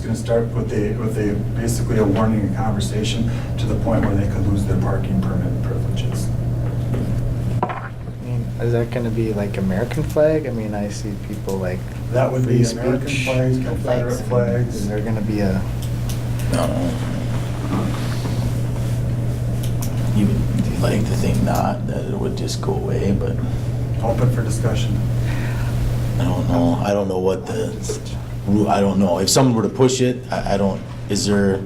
gonna start with a, with a, basically a warning and conversation to the point where they could lose their parking permit privileges. I mean, Mm. Is that going to be like American flag? I mean, I see people like. That would be free American speech. flags, Confederate flags. Is there going to be a, You would like to think not, that it would just go away, but Open for discussion. I don't know. I don't know what the, ru- I don't know. If someone were to push it, I, I don't, is there,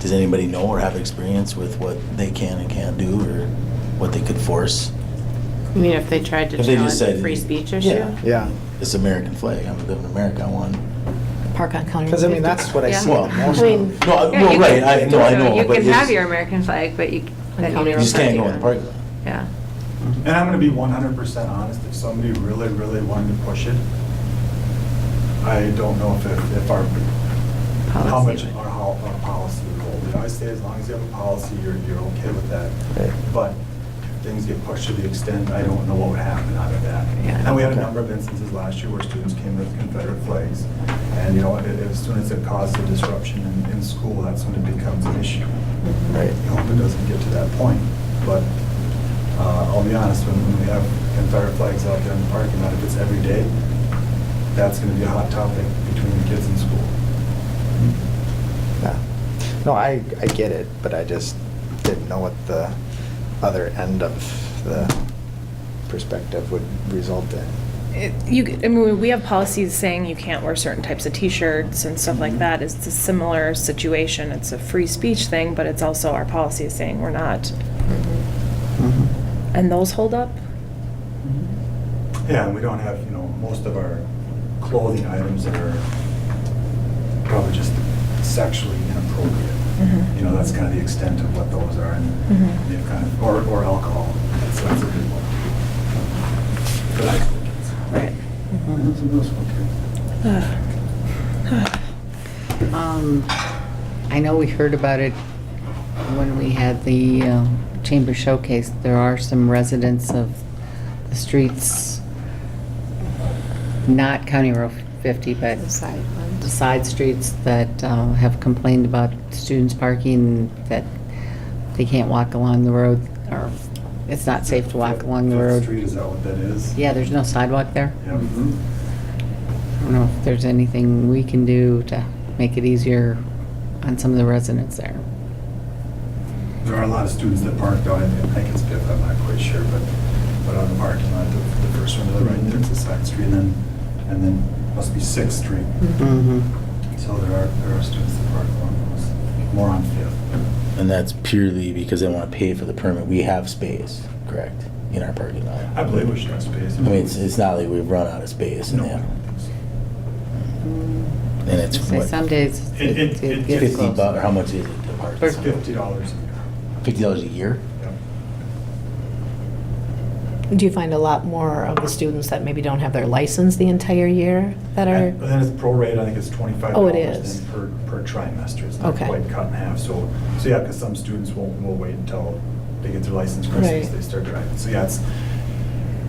does anybody know or have experience with what they can and can't do or what they could force? You mean if they tried to If they challenge just the said- free speech Yeah. issue? yeah. This American flag, I'm living in America, I want. Park on County Road 50. Because I mean, that's what I Yeah. see Well, the most. I No, mean- I- Yeah, well, you right, can- I, no, I so know, You but can it's- have your American flag, but you, that you You You just can't go in the parking lot. Yeah. And I'm gonna be one hundred percent honest, if somebody really, really wanted to push it, I don't know if, it- if our, how Policy much would- our, how, our policy would hold. We always say as long as you have a policy, you're, you're okay with that. Right. But if things get pushed to the extent, I don't know what would happen out of that. Yeah. And we had a Okay. number of instances last year where students came with Confederate flags. And, you know, a- as soon as it causes a disruption in, in school, that's when it becomes an issue. Right. I hope it doesn't get to that point, but uh, I'll be honest, when when we have Confederate flags out there in the parking lot, if it's every day, that's gonna be a hot topic between the kids in school. Yeah. No, I, I get it, but I just didn't know what the other end of the perspective would result in. It- You, I mean, we have policies saying you can't wear certain types of T-shirts and stuff like that. It's a similar situation. It's a free speech thing, but it's also our policy is saying we're not. Mm-hmm. And those hold up? Yeah, and we don't have, you know, most of our clothing items that are probably just sexually inappropriate. Mhm. You know, that's kind of the extent of what those are, and Mhm. they've kind of, or, or alcohol, that's, that's a good one. For high school kids. Right. That's a middle school kid. Um, I know we heard about it when we had the um, Chamber Showcase. There are some residents of the streets, not County Road 50, but The side the ones. side streets that uh, have complained about students parking, that they can't walk along the road, or it's not safe to walk along the Fifth road. Street, is that what that is? Yeah, there's no sidewalk there. Yeah. I don't know if there's anything we can do to make it easier on some of the residents there. There are a lot of students that park though, and I think it's Fifth, I'm not quite sure, but, but on the parking lot, the the first one to the right, there's a side street, and then, and then must be Sixth Street. Mm-hmm. So there are, there are students that park along those, more on Fifth. And that's purely because they want to pay for the permit. We have space, correct, in our parking lot. I believe we should have space. I mean, it's, it's not like we've run out of space in No, I there. don't think so. And it's Say what, some days It- it- it it it gets gets fifty close. bucks, or how much is it to park? There's fifty dollars a year. Fifty dollars a year? Yep. Do you find a lot more of the students that maybe don't have their license the entire year that And then it's prorate, I think it's twenty-five Oh, dollars it is. then per, per trimester. It's not Okay. quite cut in half, so, so yeah, because some students will, will wait until they get their license crisis, Right. they start driving. So yeah, it's,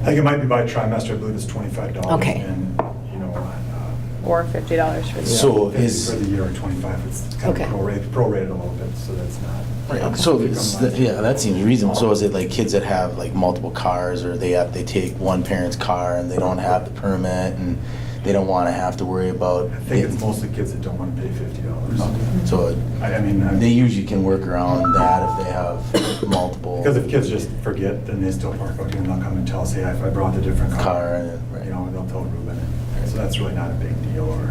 I think it might be by trimester, I believe it's twenty-five dollars. Okay. And, you know, uh, Or fifty dollars for the- So fifty is- For the year or twenty-five, it's kind Okay. of prorated, prorated a little bit, so that's not. Right, so Okay. it's, yeah, that seems reasonable. So is it like kids that have like multiple cars or they have, they take one parent's car and they don't have the permit and they don't want to have to worry about? I think it's mostly kids that don't want to pay fifty dollars. So it- I, I mean. I- they usually can work around that if they have multiple. Because if kids just forget, then they still park out here and they'll come and tell us, hey, I I brought a different Car car. and then- right. You know, and they'll tell Ruben. So that's really not a big deal or,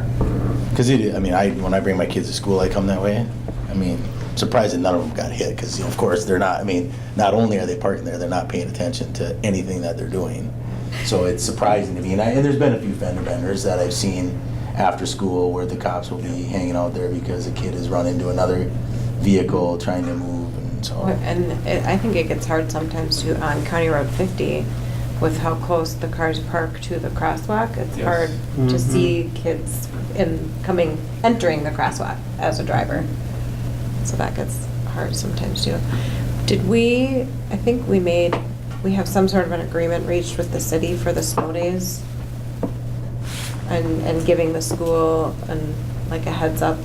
Because it, I mean, I when I bring my kids to school, I come that way. I mean, surprised that none of them got hit because, you know, of course, they're not. I mean, not only are they parking there, they're not paying attention to anything that they're doing. So it's surprising to me. And, I, and there's been a few fender benders that I've seen after school where the cops will be hanging out there because a kid has run into another vehicle trying to move, and so. And it- I think it gets hard sometimes too on County Road 50 with how close the cars park to the crosswalk. It's Yes. hard to Mhm. see kids in, coming, entering the crosswalk as a driver. So that gets hard sometimes too. Did we, I think we made, we have some sort of an agreement reached with the city for the snow days? And, and giving the school and like a heads up